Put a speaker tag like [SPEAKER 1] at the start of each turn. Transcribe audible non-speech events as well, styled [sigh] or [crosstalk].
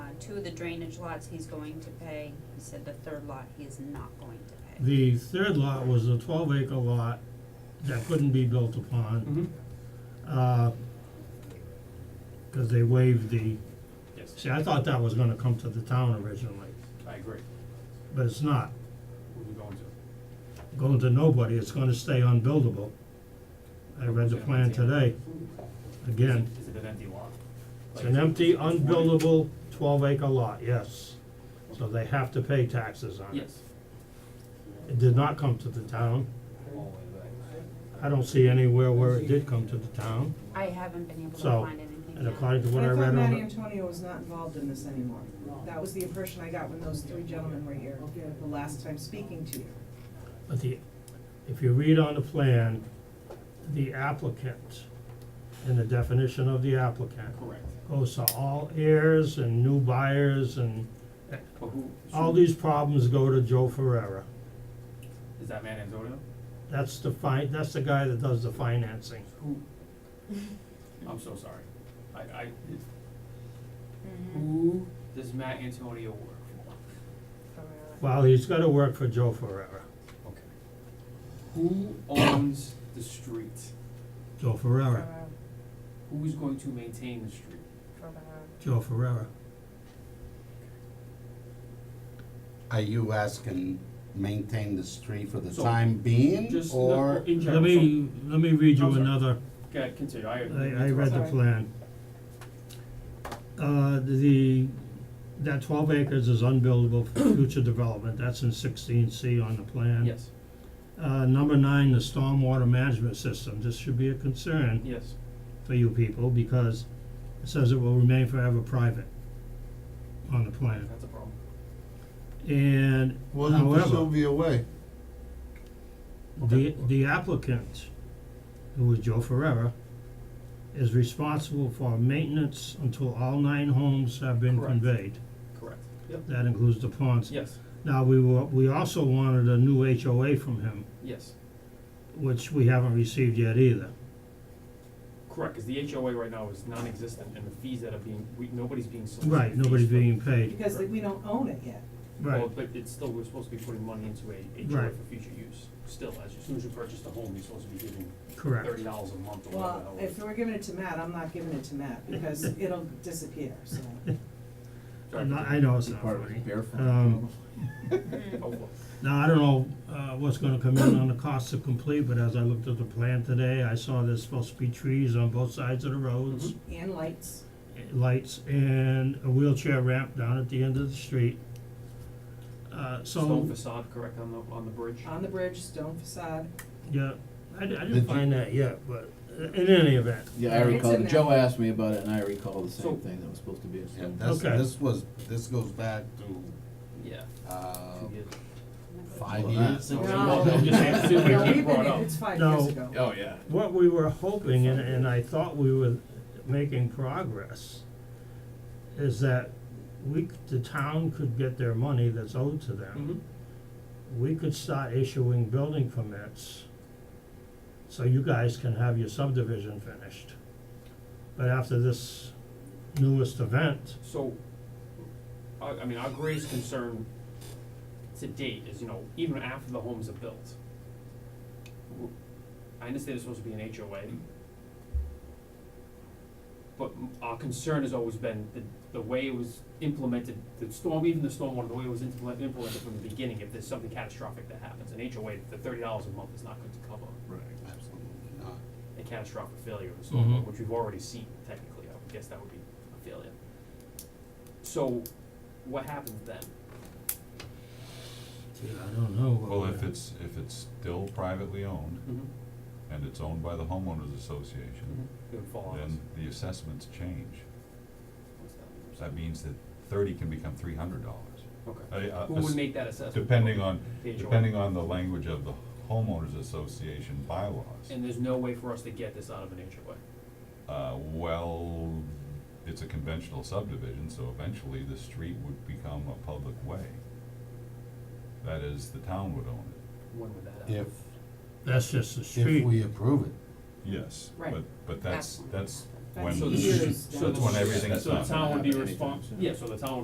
[SPEAKER 1] Uh, two of the drainage lots he's going to pay, he said the third lot he is not going to pay.
[SPEAKER 2] The third lot was a twelve acre lot that couldn't be built upon,
[SPEAKER 3] Mm-hmm.
[SPEAKER 2] uh, cause they waived the,
[SPEAKER 3] Yes,
[SPEAKER 2] see, I thought that was gonna come to the town originally,
[SPEAKER 3] I agree.
[SPEAKER 2] but it's not.
[SPEAKER 3] What are we going to?
[SPEAKER 2] Going to nobody, it's gonna stay unbuildable. I read the plan today, again,
[SPEAKER 3] Is it an empty lot?
[SPEAKER 2] it's an empty, unbuildable twelve acre lot, yes. So they have to pay taxes on it.
[SPEAKER 3] Yes.
[SPEAKER 2] It did not come to the town, I don't see anywhere where it did come to the town,
[SPEAKER 1] I haven't been able to
[SPEAKER 2] So,
[SPEAKER 1] find anything
[SPEAKER 2] and
[SPEAKER 1] yet.
[SPEAKER 2] according to what I read
[SPEAKER 4] thought
[SPEAKER 2] on the.
[SPEAKER 4] Matty Antonio was not involved in this anymore. That was the impression I got when those three gentlemen were here the last time speaking to you.
[SPEAKER 2] But the, if you read on the plan, the applicant, and the definition of the applicant,
[SPEAKER 3] Correct.
[SPEAKER 2] goes to all heirs and new buyers and
[SPEAKER 3] But who?
[SPEAKER 2] all
[SPEAKER 3] should-
[SPEAKER 2] these problems go to Joe Ferrera.
[SPEAKER 3] Is that man Antonio?
[SPEAKER 2] That's the fi- that's the guy that does the financing.
[SPEAKER 3] Who? [laughs] I'm so sorry. I, I, it's- Mm-hmm.
[SPEAKER 1] Mhm.
[SPEAKER 3] who does Matt Antonio work for?
[SPEAKER 1] uh,
[SPEAKER 2] Well, he's gotta work for Joe Ferrera.
[SPEAKER 3] Okay. Who owns the street?
[SPEAKER 2] Joe Ferrera,
[SPEAKER 3] Who is going to maintain the street?
[SPEAKER 2] Joe Ferrera.
[SPEAKER 5] Are you asking maintain the street for the
[SPEAKER 3] So,
[SPEAKER 5] time being,
[SPEAKER 3] Just, no,
[SPEAKER 5] or?
[SPEAKER 3] in general.
[SPEAKER 2] Let me, let me read you
[SPEAKER 3] I'm sorry.
[SPEAKER 2] another
[SPEAKER 3] so- Okay, continue, I.
[SPEAKER 2] I, I read the
[SPEAKER 4] Sorry.
[SPEAKER 2] plan. Uh, the, that twelve acres is unbuildable for future development, that's in sixteen C on the plan.
[SPEAKER 3] Yes,
[SPEAKER 2] Uh, number nine, the stormwater management system, this should be a concern
[SPEAKER 3] yes,
[SPEAKER 2] for you people, because it says it will remain forever private on the plan,
[SPEAKER 3] that's a problem.
[SPEAKER 2] and
[SPEAKER 6] Wasn't the
[SPEAKER 2] however,
[SPEAKER 6] Sylvia Way?
[SPEAKER 2] the, the applicant, who was Joe Ferrera, is responsible for maintenance until all nine homes have been
[SPEAKER 3] Correct.
[SPEAKER 2] conveyed.
[SPEAKER 3] Correct. Yep.
[SPEAKER 2] That includes the ponds.
[SPEAKER 3] Yes,
[SPEAKER 2] Now, we were, we also wanted a new HOA from him,
[SPEAKER 3] yes,
[SPEAKER 2] which we haven't received yet either.
[SPEAKER 3] correct, cause the HOA right now is non-existent and the fees that are being, we, nobody's being solicited.
[SPEAKER 2] Right,
[SPEAKER 3] fees
[SPEAKER 2] nobody's
[SPEAKER 3] for-
[SPEAKER 2] being paid,
[SPEAKER 4] Because we don't own it yet.
[SPEAKER 2] right.
[SPEAKER 3] Well, but it's still, we're supposed to be putting money into a HOA
[SPEAKER 2] Right.
[SPEAKER 3] for future use, still, as soon as you purchase the home, you're supposed to be giving
[SPEAKER 2] Correct.
[SPEAKER 3] thirty dollars a month or whatever.
[SPEAKER 4] Well,
[SPEAKER 3] that
[SPEAKER 4] if
[SPEAKER 3] was.
[SPEAKER 4] we're giving it to Matt, I'm not giving it to Matt
[SPEAKER 2] [laughs]
[SPEAKER 4] because it'll disappear, so.
[SPEAKER 3] Sorry,
[SPEAKER 2] I'm not- I
[SPEAKER 3] continue.
[SPEAKER 2] know it's not funny. Um,
[SPEAKER 3] Oh, well,
[SPEAKER 2] Now, I don't know, uh, what's gonna come in on the cost to complete, but as I looked at the plan today, I saw there's supposed to be trees on both sides of the
[SPEAKER 3] Mm-hmm.
[SPEAKER 2] roads,
[SPEAKER 4] And lights.
[SPEAKER 2] lights, and a wheelchair ramp down at the end of the street. Uh,
[SPEAKER 3] Stone
[SPEAKER 2] so,
[SPEAKER 3] facade, correct, on the, on the bridge?
[SPEAKER 4] on the bridge, stone facade.
[SPEAKER 2] yeah, I, di-
[SPEAKER 6] Did
[SPEAKER 2] I didn't
[SPEAKER 6] you-
[SPEAKER 2] find that yet, but uh, in any event,
[SPEAKER 7] Yeah, I
[SPEAKER 4] It's
[SPEAKER 7] recall,
[SPEAKER 4] in there.
[SPEAKER 7] Joe asked me about it, and I recall the
[SPEAKER 3] So-
[SPEAKER 7] same thing that was supposed to be a
[SPEAKER 5] Yeah,
[SPEAKER 7] stone.
[SPEAKER 5] this,
[SPEAKER 2] Okay.
[SPEAKER 5] this was, this goes back to,
[SPEAKER 3] Yeah.
[SPEAKER 5] uh,
[SPEAKER 3] to get-
[SPEAKER 5] five
[SPEAKER 7] Well, that-
[SPEAKER 5] years. something
[SPEAKER 4] No.
[SPEAKER 5] like
[SPEAKER 3] I'm just saying,
[SPEAKER 5] that.
[SPEAKER 3] see, we
[SPEAKER 4] No,
[SPEAKER 3] keep
[SPEAKER 4] we've
[SPEAKER 3] brought
[SPEAKER 4] been-
[SPEAKER 3] up.
[SPEAKER 4] It's five
[SPEAKER 2] No.
[SPEAKER 4] years ago.
[SPEAKER 7] Oh, yeah.
[SPEAKER 2] what we were hoping, and, and I thought we were making progress, is that we, c- the town could get their money that's owed to them.
[SPEAKER 3] Mhm.
[SPEAKER 2] We could start issuing building permits, so you guys can have your subdivision finished. But after this newest event,
[SPEAKER 3] So, I, I mean, our greatest concern to date is, you know, even after the homes are built. w- I understand it's supposed to be an HOA. But m- our concern has always been the, the way it was implemented, the storm, even the stormwater, the way it was implement, implemented from the beginning, if there's something catastrophic that happens, an HOA, the thirty dollars a month is not going to cover
[SPEAKER 5] Right, absolutely not.
[SPEAKER 3] a catastrophic failure of
[SPEAKER 8] Mm-hmm.
[SPEAKER 3] the
[SPEAKER 2] Mhm.
[SPEAKER 3] stormwater, which we've already seen technically, I would guess that would be a failure. So, what happens then?
[SPEAKER 2] gee, I don't know. what
[SPEAKER 8] Well,
[SPEAKER 2] we're-
[SPEAKER 8] if it's, if it's still privately owned
[SPEAKER 3] Mm-hmm.
[SPEAKER 8] and it's owned by the homeowners association,
[SPEAKER 3] It would fall on us.
[SPEAKER 8] then the assessments change.
[SPEAKER 3] What's that?
[SPEAKER 8] That means that thirty can become three hundred dollars.
[SPEAKER 3] Okay.
[SPEAKER 8] I, I-
[SPEAKER 3] Who would make that assessment?
[SPEAKER 8] depending on,
[SPEAKER 3] The HOA.
[SPEAKER 8] depending on the language of the homeowners association bylaws.
[SPEAKER 3] And there's no way for us to get this out of an HOA.
[SPEAKER 8] Uh, well, it's a conventional subdivision, so eventually the street would become a public way. That is, the town would own it.
[SPEAKER 3] When would that happen?
[SPEAKER 5] If,
[SPEAKER 2] That's just the
[SPEAKER 5] if
[SPEAKER 2] street,
[SPEAKER 5] we approve it.
[SPEAKER 8] Yes,
[SPEAKER 4] Right.
[SPEAKER 8] but, but that's, that's
[SPEAKER 4] That's
[SPEAKER 8] when,
[SPEAKER 3] So the,
[SPEAKER 4] years
[SPEAKER 3] so
[SPEAKER 8] that's when
[SPEAKER 3] the,
[SPEAKER 8] everything's
[SPEAKER 3] so the
[SPEAKER 8] not
[SPEAKER 3] town would be
[SPEAKER 7] happening anytime
[SPEAKER 3] respons-
[SPEAKER 7] soon.
[SPEAKER 3] yeah, so the town